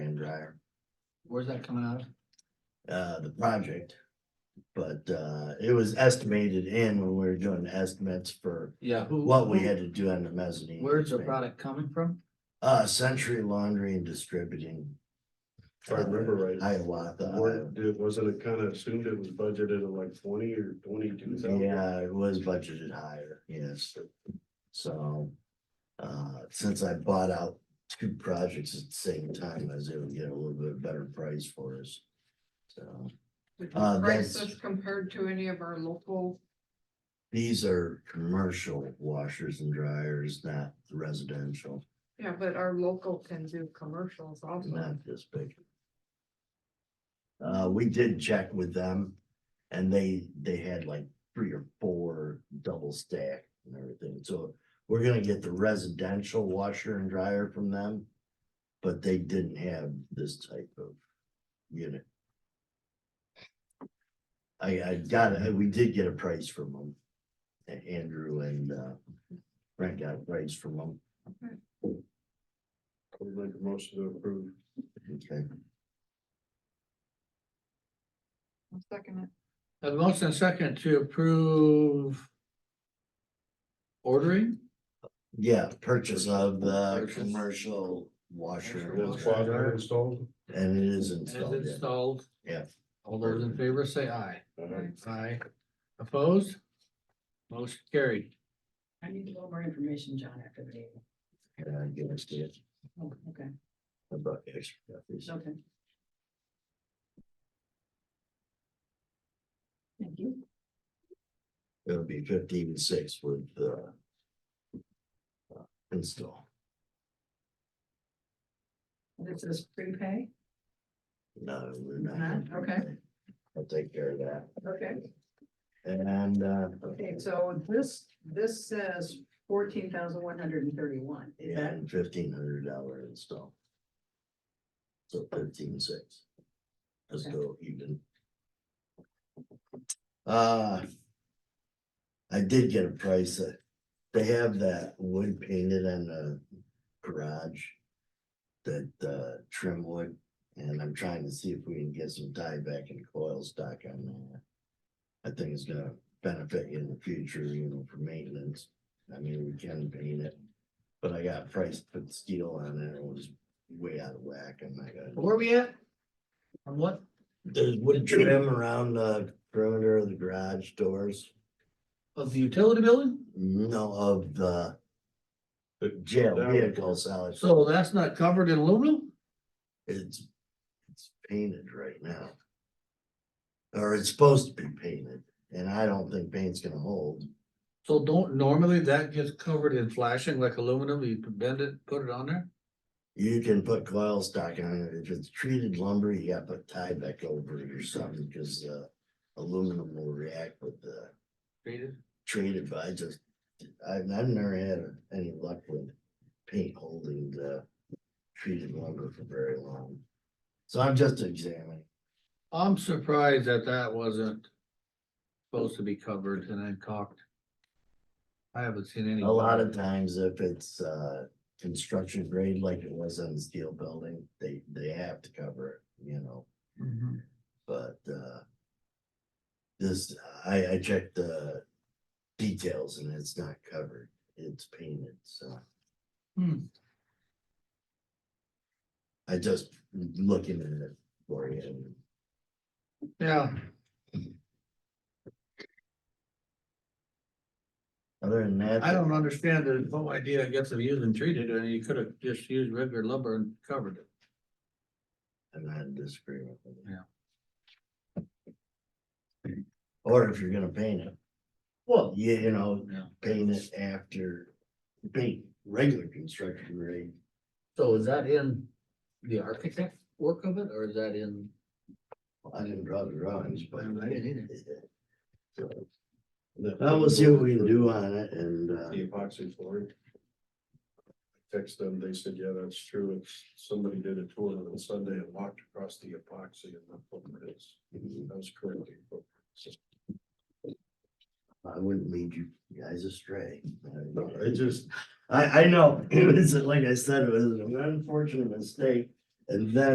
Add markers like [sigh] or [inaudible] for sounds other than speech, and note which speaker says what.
Speaker 1: Where's that coming out of?
Speaker 2: uh, the project. But, uh, it was estimated in when we were doing estimates for
Speaker 1: Yeah, who?
Speaker 2: what we
Speaker 1: who-
Speaker 2: had to do on the mezzanine.
Speaker 1: Where's the
Speaker 2: basement.
Speaker 1: product coming from?
Speaker 2: Uh, Century Laundry and Distributing.
Speaker 3: If I remember right.
Speaker 2: Hiawatha.
Speaker 3: Weren't- it- Wasn't it kind of assumed it was budgeted at like twenty or twenty-two thousand?
Speaker 2: Yeah, it was budgeted higher, yes. So, uh, since I bought out two projects at the same time, I was able to get a little bit better price for us. So
Speaker 4: Would
Speaker 2: Uh,
Speaker 4: you price
Speaker 2: that's-
Speaker 4: this compared to any of our local?
Speaker 2: these are commercial washers and dryers, not residential,
Speaker 4: Yeah, but our local can do commercials also.
Speaker 2: not this big. Uh, we did check with them and they, they had like three or four double stack and everything, so. We're gonna get the residential washer and dryer from them, but they didn't have this type of unit. I, I got, it. we did get a price from them. A- Andrew and, uh, Brent got a price from them.
Speaker 3: Would make a motion to approve.
Speaker 2: Okay,
Speaker 4: I'll Second, it.
Speaker 1: A motion and second to approve. Ordering?
Speaker 2: yeah, purchase of the
Speaker 1: Purchase.
Speaker 2: commercial washer. and
Speaker 3: That's
Speaker 1: Commercial
Speaker 2: dryer.
Speaker 1: washer.
Speaker 3: why I installed.
Speaker 2: And it is
Speaker 1: As
Speaker 2: installed, yeah.
Speaker 1: installed.
Speaker 2: Yeah.
Speaker 1: All those in favor say aye.
Speaker 3: Alright.
Speaker 1: Aye. Opposed? Motion carried.
Speaker 5: I need a little more information, John, after the meeting.
Speaker 2: and I give it to you.
Speaker 5: Oh, okay,
Speaker 2: I brought extra copies.
Speaker 5: okay. Thank you.
Speaker 2: It'll be fifteen and six with the uh, install.
Speaker 5: This is prepay,
Speaker 2: No, we're not.
Speaker 5: Not?
Speaker 2: gonna do
Speaker 5: Okay.
Speaker 2: that. I'll take care of that.
Speaker 5: okay,
Speaker 2: And, uh,
Speaker 5: okay, so this, this says fourteen thousand one hundred and thirty-one, is that,
Speaker 2: and fifteen hundred dollar install. So fifteen six. Let's
Speaker 5: Okay.
Speaker 2: go even. Uh. I did get a price that, they have that wood painted on the garage. That, uh, trim wood, and I'm trying to see if we can get some tie back and coil stock on that. I think it's gonna benefit in the future, you know, for maintenance. I mean, we can paint it. But I got priced, put the steel on it, it was way out of whack, and I got,
Speaker 1: Where we at? On what?
Speaker 2: there's wood trim around the perimeter of the garage doors.
Speaker 1: Of the utility building?
Speaker 2: No, of the
Speaker 3: The-
Speaker 2: jail
Speaker 3: Down.
Speaker 2: vehicle salvage,
Speaker 1: So that's not covered in aluminum?
Speaker 2: it's, it's painted right now. Or it's supposed to be painted, and I don't think paint's gonna hold,
Speaker 1: So don't normally that gets covered in flashing like aluminum? You can bend it, put it on there?
Speaker 2: you can put coil stock on it, if it's treated lumber, you gotta put Tyvek over it or something, cause uh. Aluminum will react with the
Speaker 1: Treated?
Speaker 2: traded, but I just, I've, I've never had any luck with paint holding the treated lumber for very long. So I'm just examining.
Speaker 1: I'm surprised that that wasn't supposed to be covered and then caulked. I haven't seen any.
Speaker 2: A lot of times if it's, uh, construction grade like it was on the steel building, they, they have to cover it, you know,
Speaker 1: Mhm.
Speaker 2: but, uh, this, I, I checked the details and it's not covered. It's painted, so.
Speaker 1: Hmm.
Speaker 2: I just looking at it for you. and
Speaker 1: Yeah,
Speaker 2: Other than that.
Speaker 1: I don't understand the whole idea, I guess, of using treated, and you could have just used regular lumber and covered it.
Speaker 2: I'm not in disagreement with it.
Speaker 1: Yeah.
Speaker 2: Or if you're gonna paint it,
Speaker 1: Well.
Speaker 2: you, you know,
Speaker 1: Yeah,
Speaker 2: paint it after, paint regular construction grade.
Speaker 1: so is that in the architect work of it, or is that in?
Speaker 2: I didn't draw the drawings, but.
Speaker 1: I didn't either.
Speaker 2: So, I will see what we can do on it and, uh,
Speaker 3: The epoxy flooring. Text them, they said, yeah, that's true, it's, somebody did a tour on Sunday and walked across the epoxy and the footprints, that was correctly.
Speaker 2: I wouldn't lead you guys astray.
Speaker 3: No, it just,
Speaker 2: [laughs] I, I know, it was, like I said, it was an unfortunate mistake. And then